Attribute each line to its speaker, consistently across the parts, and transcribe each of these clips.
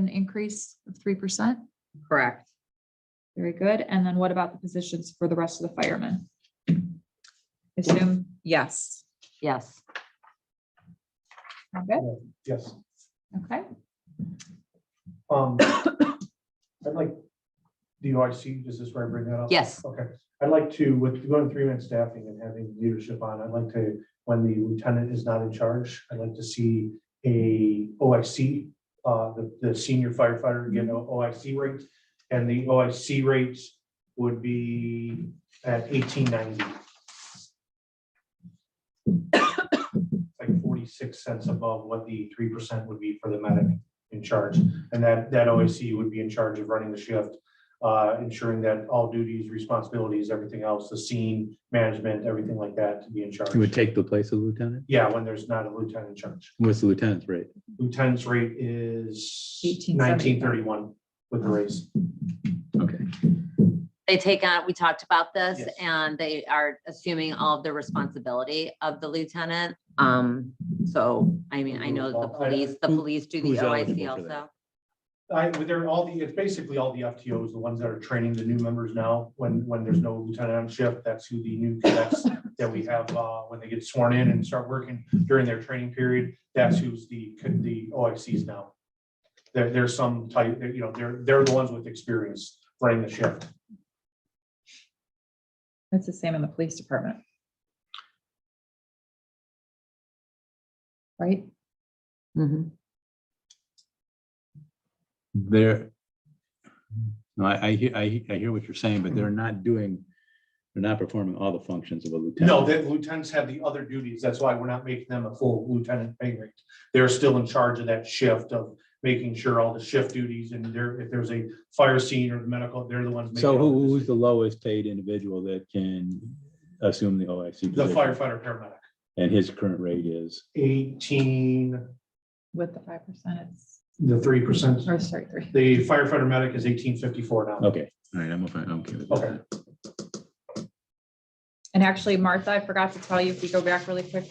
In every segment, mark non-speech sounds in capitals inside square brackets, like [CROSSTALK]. Speaker 1: an increase of three percent.
Speaker 2: Correct.
Speaker 1: Very good. And then what about the positions for the rest of the firemen? Assume, yes.
Speaker 2: Yes.
Speaker 1: All good?
Speaker 3: Yes.
Speaker 1: Okay,
Speaker 3: Um, I'd like, the OIC, is this where I bring that up?
Speaker 2: Yes.
Speaker 3: Okay, I'd like to, with going three-man staffing and having leadership on, I'd like to, when the lieutenant is not in charge, I'd like to see a OIC, uh, the, the senior firefighter get an OIC rate, and the OIC rate would be at eighteen ninety. Like forty-six cents above what the three percent would be for the medic in charge, and that, that OIC would be in charge of running the shift, uh, ensuring that all duties, responsibilities, everything else, the scene management, everything like that to be in charge.
Speaker 4: It would take the place of lieutenant?
Speaker 3: Yeah, when there's not a lieutenant in charge.
Speaker 4: What's the lieutenant's rate?
Speaker 3: Lieutenant's rate is
Speaker 1: 1875.
Speaker 3: nineteen thirty-one with the raise.
Speaker 4: Okay,
Speaker 2: They take on, we talked about this
Speaker 3: Yes.
Speaker 2: and they are assuming all of the responsibility of the lieutenant. Um, so, I mean, I know the police, the
Speaker 4: Who-
Speaker 2: police do the
Speaker 4: who's eligible
Speaker 2: OIC
Speaker 4: for that?
Speaker 2: also.
Speaker 3: I, they're all the, it's basically all the FTOs, the ones that are training the new members now, when, when there's no lieutenant on shift, that's who the new cadets that we have, uh, when they get sworn in and start working during their training period, that's who's the, the OICs now. There, there's some type, they're, you know, they're, they're the ones with experience running the shift.
Speaker 1: that's the same in the police department. Right?
Speaker 2: Mhm.
Speaker 4: there. No, I, I, hear- I, he- I hear what you're saying, but they're not doing, they're not performing all the functions of a lieutenant.
Speaker 3: No, the lieutenants have the other duties. That's why we're not making them a full lieutenant pay rate. They're still in charge of that shift of making sure all the shift duties and there, if there's a fire scene or medical, they're the ones. making
Speaker 4: So
Speaker 3: all
Speaker 4: who,
Speaker 3: the
Speaker 4: who's the lowest paid individual that can assume the OIC?
Speaker 3: The
Speaker 4: position?
Speaker 3: firefighter paramedic,
Speaker 4: And his current rate is,
Speaker 3: eighteen,
Speaker 1: With the five percent, it's,
Speaker 3: the three percent,
Speaker 1: or sorry, three.
Speaker 3: the firefighter medic is eighteen fifty-four now.
Speaker 4: okay, all right, I'm, okay. I'm okay with
Speaker 3: Okay.
Speaker 4: that.
Speaker 1: And actually, Martha, I forgot to tell you, if you go back really quick,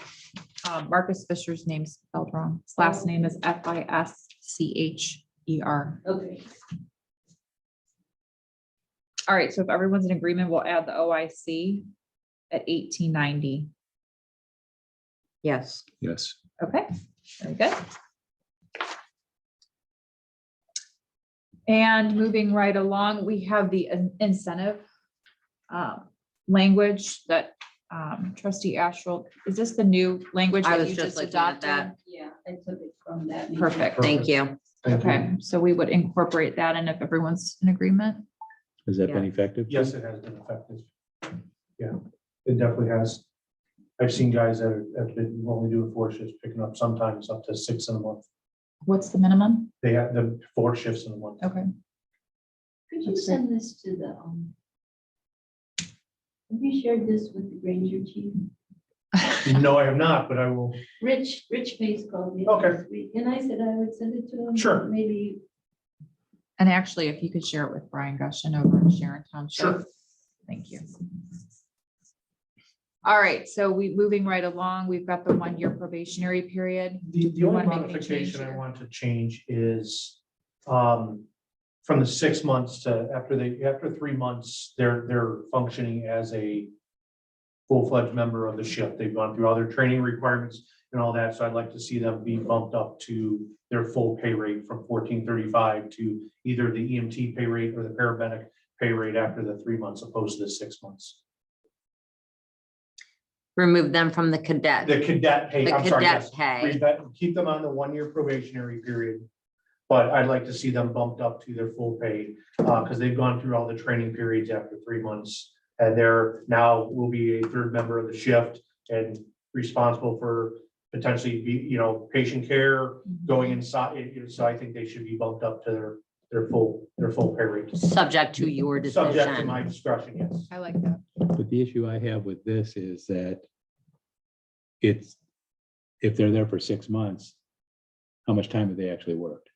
Speaker 1: um, Marcus Fisher's name's spelled wrong. His last name is F I S C H E R.
Speaker 2: Okay.
Speaker 1: All right, so if everyone's in agreement, we'll add the OIC at eighteen ninety.
Speaker 2: Yes.
Speaker 4: Yes.
Speaker 1: Okay, very good. And moving right along, we have the in- incentive uh, language that um, trustee Astral, is this the new language
Speaker 2: I
Speaker 1: that
Speaker 2: was
Speaker 1: you
Speaker 2: just
Speaker 1: just
Speaker 2: looking at
Speaker 1: adopted?
Speaker 5: Yeah, I took it from that. meeting.
Speaker 1: Perfect.
Speaker 2: Thank you.
Speaker 3: Thank you.
Speaker 1: Okay, so we would incorporate that and if everyone's in agreement.
Speaker 4: Has that been
Speaker 2: Yeah.
Speaker 4: effective?
Speaker 3: Yes, it has been effective. Yeah, it definitely has. I've seen guys that have been, only doing four shifts, picking up sometimes up to six in a month.
Speaker 1: What's the minimum?
Speaker 3: They have the four shifts in a month.
Speaker 1: Okay,
Speaker 5: Could you send this to the, um, have you shared this with the Ranger chief?
Speaker 3: [LAUGHS] No, I have not, but I will,
Speaker 5: Rich, Rich Pace called me
Speaker 3: Okay.
Speaker 5: this week, and I said I would send it to him.
Speaker 3: Sure.
Speaker 5: Maybe
Speaker 1: and actually, if you could share it with Brian Gushen over in Sharon Township.
Speaker 3: Sure.
Speaker 1: Thank you. All right, so we, moving right along, we've got the one-year probationary period.
Speaker 3: the, the
Speaker 1: You
Speaker 3: only
Speaker 1: wanna make any change
Speaker 3: modification I
Speaker 1: here?
Speaker 3: want to change is um, from the six months to after they, after three months, they're, they're functioning as a full-fledged member of the ship. They've gone through all their training requirements and all that, so I'd like to see them be bumped up to their full pay rate from fourteen thirty-five to either the EMT pay rate or the paramedic pay rate after the three months opposed to the six months.
Speaker 2: Remove them from the cadet,
Speaker 3: The
Speaker 2: the
Speaker 3: cadet pay, I'm sorry, yes.
Speaker 2: cadet pay.
Speaker 3: Rebate- keep them on the one-year probationary period. But I'd like to see them bumped up to their full pay, uh, because they've gone through all the training periods after three months. And they're now will be a third member of the shift and responsible for potentially be, you know, patient care going inside. It- it- So I think they should be bumped up to their, their full, their full pay rate.
Speaker 2: Subject to your
Speaker 3: Subject to my
Speaker 2: decision.
Speaker 3: discretion, yes.
Speaker 1: I like that.
Speaker 4: But the issue I have with this is that it's, if they're there for six months, how much time have they actually worked?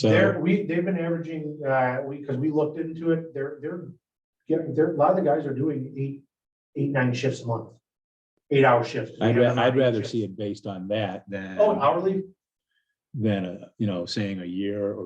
Speaker 3: They're,
Speaker 4: So,
Speaker 3: we, they've been averaging, uh, we, because we looked into it, they're, they're getting, they're, a lot of the guys are doing eight, eight, nine shifts a month. Eight hour shifts.
Speaker 4: I'd, ra- I'd rather see it based on that than,
Speaker 3: Oh, hourly?
Speaker 4: than, a you know, saying a year or